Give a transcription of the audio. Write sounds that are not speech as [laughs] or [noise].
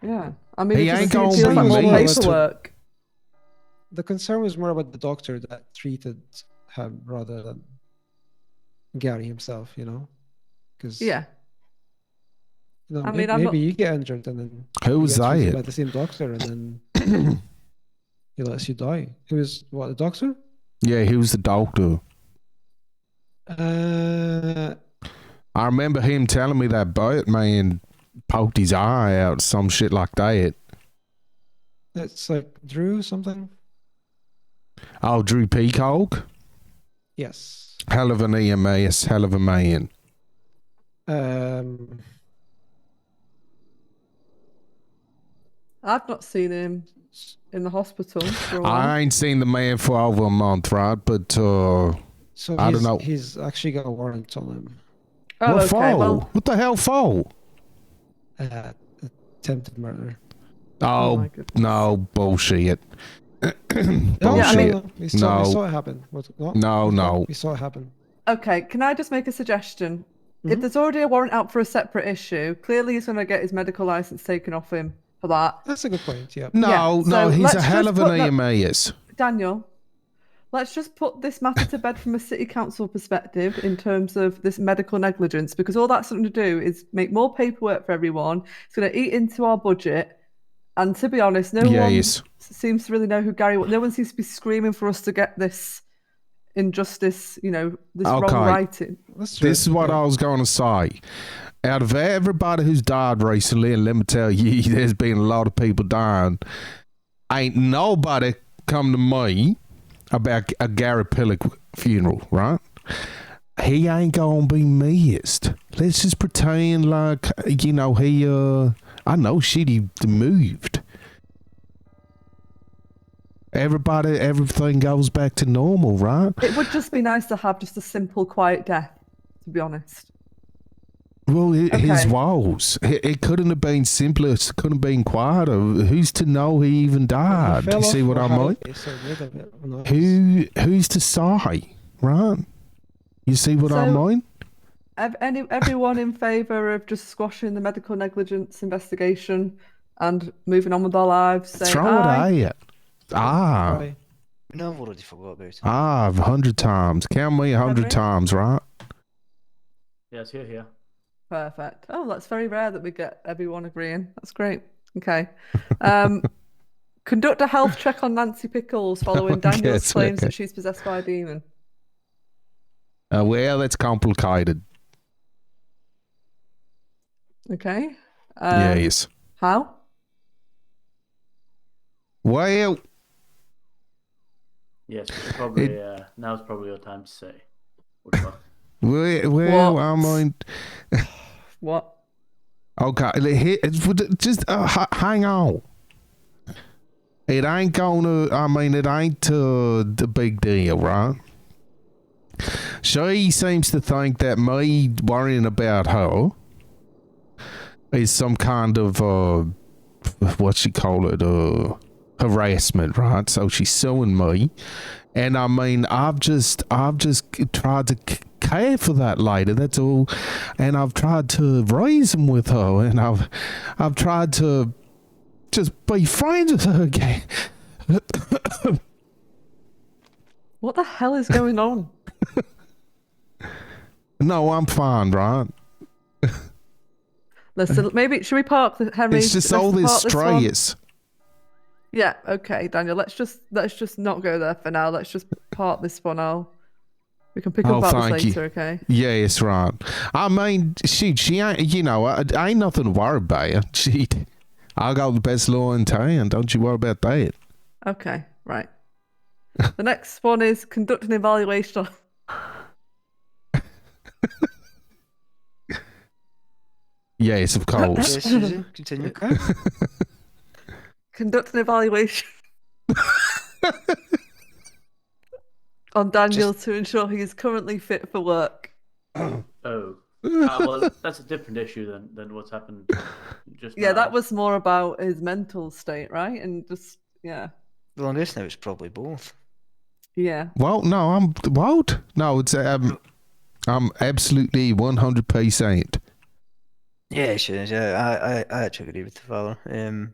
Yeah. I mean, He it ain't doesn't feel gonna like be all me. paperwork. The concern was more about the doctor that treated him rather than Gary himself, you know? Because Yeah. you know, I mean, may- maybe, I'm not- you get injured and then Who you was get treated by that? the same doctor and then he lets you die. Who was what the doctor? [clears throat] Yeah, he was the doctor. Uh, I remember him telling me that Batman poked his eye out, some shit like that. it's like Drew something. Oh, Drew Peacock? Yes. Hell of an EMS, hell of a man. Um, I've not seen him in the hospital for a while. I ain't seen the man for over a month, right? But, uh, so I don't he's- know. He's actually got a warrant on him. oh, what okay. for? Well, What the hell for? Uh, attempted murder. Oh my Oh, goodness. no, bullshit. bullshit. No, Yeah, I mean- no, no. We saw, we No. saw it happen. What, what? No, We saw- no. We saw it happen. okay. Can I just make a suggestion? If Mm-hmm. Mhm. there's already a warrant out for a separate issue, clearly he's going to get his medical license taken off him for that. That's a good point. Yeah. No, Yeah, no, so he's a let's hell just of an E put that- EMS. Daniel, let's just put this matter to bed from a city council perspective in terms of this medical negligence, because all that's going to do is make more paperwork for everyone. It's going to eat into our budget. And to be honest, no one Yes. seems to really know who Gary was. No one seems to be screaming for us to get this injustice, you know, this Okay. wrong writing. That's true. This is what yeah. I was going to say. Out of everybody who's died recently, and let me tell you, [laughs] there's been a lot of people dying. Ain't nobody come to me about a Gary Pillock funeral, right? He ain't gonna be missed. Let's just pretend like you know he. uh I know shit. He moved. Everybody, everything goes back to normal, right? It would just be nice to have just a simple, quiet death, to be honest. Well, hi his Okay. woes. It, it couldn't have been simpler. It couldn't have been quieter. Who's to know he even died? fell Ah, You see off what or I how mean? they said rid of it or not. Who who's to say, right? You see what I So- mean? Ev- Any, everyone in favour of just squashing the medical negligence investigation and moving on with our lives? Say Throw aye. it at. Ah, Aye. No, I've already forgot about it. ah, a hundred times. Count me a Henry? hundred times, right? Yes, here, here. Perfect. Oh, that's very rare that we get everyone agreeing. That's great. Okay. [laughs] Um, conduct a health check on Nancy Pickles following Daniel's Yes, claims [laughs] okay. that she's possessed by a demon. Uh, well, that's complicated. Okay. Yeah, Um, yes. How? Well, Yes, we should probably. Uh, now's probably your time to say. What the fuck? well, well I What? mean, What? Okay, li- he- it's- would- just uh, h- hang on. It ain't gonna. I mean, it ain't uh, the big deal, right? She seems to think that me worrying about her is some kind of uh, what she call it, uh, harassment, right? So she's suing me, and I mean, I've just, I've just c- tried to c- care for that lady. That's all and I've tried to reason with her, and I've I've tried to just be friends with her again. What the hell is going on? No, I'm fine, right? Listen, maybe should we park the Henry? it's just let's all park this one? stress. Yeah. Okay, Daniel. Let's just let's just not go there for now. Let's just park this one. I'll we can pick up Oh, about thank this you. later. Okay. Yeah, it's right. I mean, she she ain't you know I, I ain't nothing to worry about. She, I got the best law in town. Don't you worry about that. Okay. Right. [laughs] the next one is conduct an evaluation. on- Yes, of course. Yes, Susan, continue. Okay. conduct an evaluation [laughs] on Daniel to ensure he is currently fit for work. [laughs] Oh. Ah, well, that's a different issue than, than what's happened just Yeah, now. that was more about his mental state, right? And just yeah, Well, on this now, it's probably both. yeah. well, no, I'm what? No, it's um, I'm absolutely one hundred percent. Yeah, it should. Yeah, I, I, I actually agree with the father. Um,